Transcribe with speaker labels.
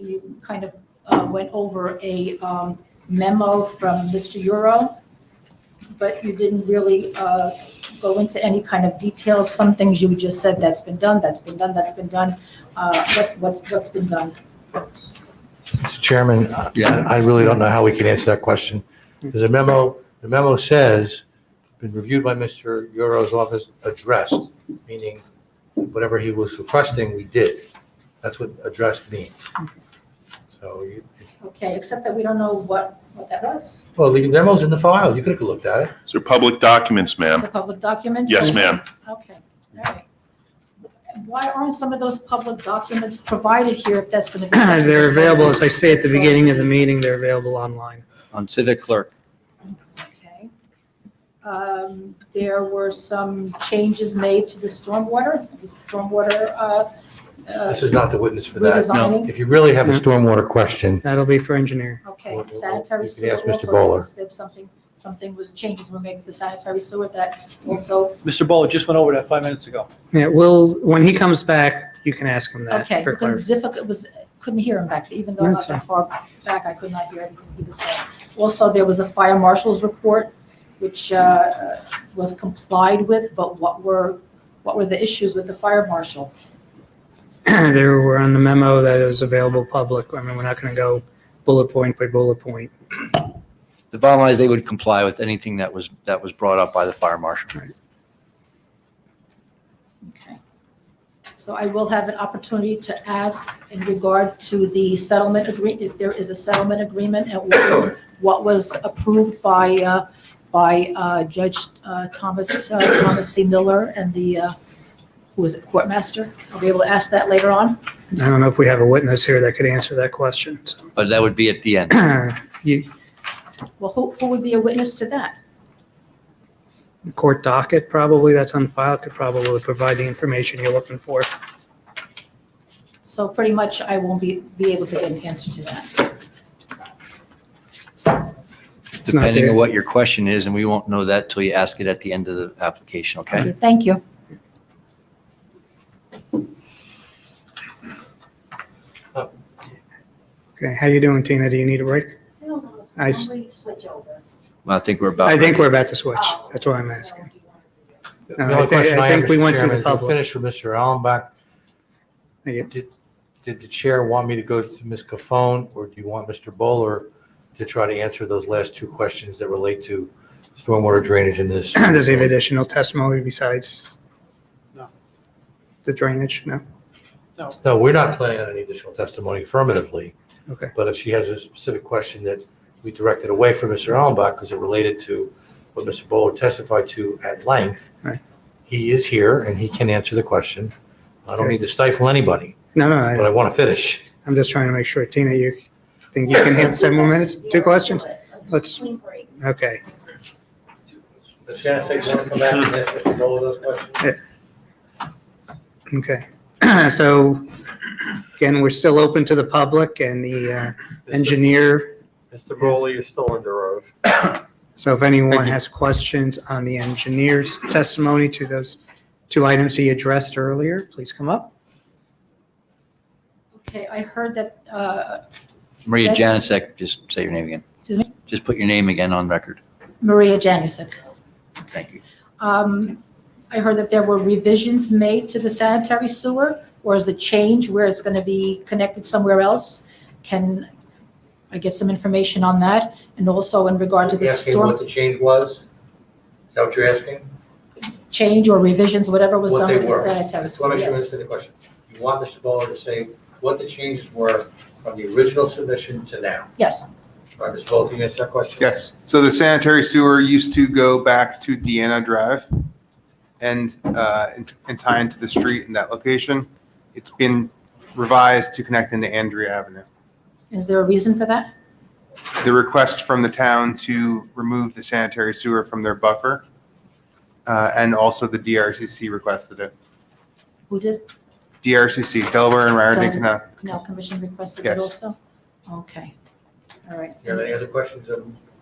Speaker 1: you kind of uh, went over a um, memo from Mr. Euro, but you didn't really uh, go into any kind of details. Some things you just said, that's been done, that's been done, that's been done. Uh, What's, what's, what's been done?
Speaker 2: Mr. Chairman, yeah, I really don't know how we can answer that question. Because the memo, the memo says, been reviewed by Mr. Euro's office, addressed, meaning whatever he was requesting, we did. That's what addressed means. So, you-
Speaker 1: Okay, except that we don't know what, what that was.
Speaker 2: well, the memo's in the file. You could have looked at it.
Speaker 3: These are public documents,
Speaker 1: It's
Speaker 3: ma'am.
Speaker 1: a public document?
Speaker 3: Yes, ma'am.
Speaker 1: Okay, all right. Why aren't some of those public documents provided here if that's going to be? such a
Speaker 4: They're available, as
Speaker 1: discussion?
Speaker 4: I say at the beginning of the meeting, they're available online.
Speaker 5: on Civic Clerk.
Speaker 1: Okay. Um, There were some changes made to the stormwater, the stormwater uh, uh,
Speaker 2: This is not the witness for that.
Speaker 1: redesigning.
Speaker 2: If you really have a stormwater question,
Speaker 4: That'll be for engineer.
Speaker 1: Okay,
Speaker 2: Well, well,
Speaker 1: sanitary
Speaker 2: you can
Speaker 1: sewer
Speaker 2: ask Mr.
Speaker 1: also,
Speaker 2: Bowler.
Speaker 1: there was something, something was, changes were made with the sanitary sewer that also,
Speaker 6: Mr. Bowler just went over that five minutes ago.
Speaker 4: Yeah, we'll, when he comes back, you can ask him that
Speaker 1: okay,
Speaker 4: for
Speaker 1: because it's
Speaker 4: clarification.
Speaker 1: difficult, it was, couldn't hear him back, even though I'm not
Speaker 4: That's
Speaker 1: that far back, I could not hear anything he was saying. Also, there was a fire marshal's report, which uh, was complied with, but what were, what were the issues with the fire marshal?
Speaker 4: There were on the memo that is available public. I mean, we're not going to go bullet point by bullet point.
Speaker 5: The bottom line is they would comply with anything that was, that was brought up by the fire marshal.
Speaker 1: Okay. So I will have an opportunity to ask in regard to the settlement agreement, if there is a settlement agreement and what was, what was approved by, uh, by uh, Judge uh, Thomas, uh, Thomas C. Miller and the, uh, who is it, courtmaster? I'll be able to ask that later on.
Speaker 4: I don't know if we have a witness here that could answer that question. so.
Speaker 5: But that would be at the end.
Speaker 4: You-
Speaker 1: Well, who, who would be a witness to that?
Speaker 4: the Court docket, probably, that's on file, could probably provide the information you're looking for.
Speaker 1: So pretty much I won't be, be able to get an answer to that.
Speaker 4: It's not
Speaker 5: Depending
Speaker 4: there.
Speaker 5: on what your question is, and we won't know that till you ask it at the end of the application, okay?
Speaker 1: Thank you.
Speaker 4: Okay, how you doing, Tina? Do you need a break? I s-
Speaker 1: switch over. Oh,
Speaker 5: Well, I think we're about.
Speaker 4: I think
Speaker 5: ready.
Speaker 4: we're about to switch. That's why I'm asking.
Speaker 2: the
Speaker 4: No, Uh, I
Speaker 2: only
Speaker 4: think-
Speaker 2: question
Speaker 4: I
Speaker 2: have,
Speaker 4: think we
Speaker 2: Mr.
Speaker 4: went through
Speaker 2: Chairman,
Speaker 4: the
Speaker 2: is we'll
Speaker 4: public.
Speaker 2: Finish with Mr. Allenbach.
Speaker 4: Thank you.
Speaker 2: Did did the chair want me to go to Ms. Cofone, or do you want Mr. Bowler to try to answer those last two questions that relate to stormwater drainage in this?
Speaker 4: Does he have additional testimony besides?
Speaker 6: No.
Speaker 4: The drainage, no?
Speaker 2: No, we're not planning on any additional testimony affirmatively.
Speaker 4: Okay.
Speaker 2: But if she has a specific question that we directed away from Mr. Allenbach because it related to what Mr. Bowler testified to at length,
Speaker 4: Right.
Speaker 2: he is here and he can answer the question. I don't
Speaker 4: Okay.
Speaker 2: need to stifle anybody,
Speaker 4: No, no,
Speaker 2: but I
Speaker 4: I-
Speaker 2: want to finish.
Speaker 4: I'm just trying to make sure. Tina, you think you can handle 10 more minutes? Two questions? Let's, okay.
Speaker 2: Does Shannon say you want to come back and ask Mr. Bowler those questions?
Speaker 4: Okay. So again, we're still open to the public and the uh, engineer.
Speaker 7: Mr. Bowley, you're still under oath.
Speaker 4: So if anyone
Speaker 7: Thank you.
Speaker 4: has questions on the engineer's testimony to those two items he addressed earlier, please come up.
Speaker 1: Okay, I heard that, uh,
Speaker 5: Maria Janasek, just say your name again.
Speaker 1: excuse me,
Speaker 5: Just put your name again on record.
Speaker 1: Maria Janusik.
Speaker 5: Thank you.
Speaker 1: Um, I heard that there were revisions made to the sanitary sewer, or is it change where it's going to be connected somewhere else? Can I get some information on that? And also in regard to the
Speaker 2: Asking what
Speaker 1: storm
Speaker 2: the change was? Is that what you're asking?
Speaker 1: change or revisions, whatever was
Speaker 2: What
Speaker 1: done
Speaker 2: they
Speaker 1: with the
Speaker 2: were.
Speaker 1: sanitary
Speaker 2: Let
Speaker 1: sewer?
Speaker 2: me
Speaker 1: Yes.
Speaker 2: answer the question. You want Mr. Bowler to say what the changes were from the original submission to now.
Speaker 1: Yes,
Speaker 2: Right, Mr. Bowler, can you answer that question?
Speaker 7: Yes. So the sanitary sewer used to go back to Deanna Drive and, uh, and- and tie into the street in that location. It's been revised to connect into Andrea Avenue.
Speaker 1: is there a reason for that?
Speaker 7: The request from the town to remove the sanitary sewer from their buffer, uh, and also the DRCC requested it.
Speaker 1: Who did,
Speaker 7: DRCC, Delaware and Raritan
Speaker 1: Delaware.
Speaker 7: Canal.
Speaker 1: Canal Commission requested it
Speaker 7: Yes.
Speaker 1: also? Okay, all right.
Speaker 2: You have any other questions of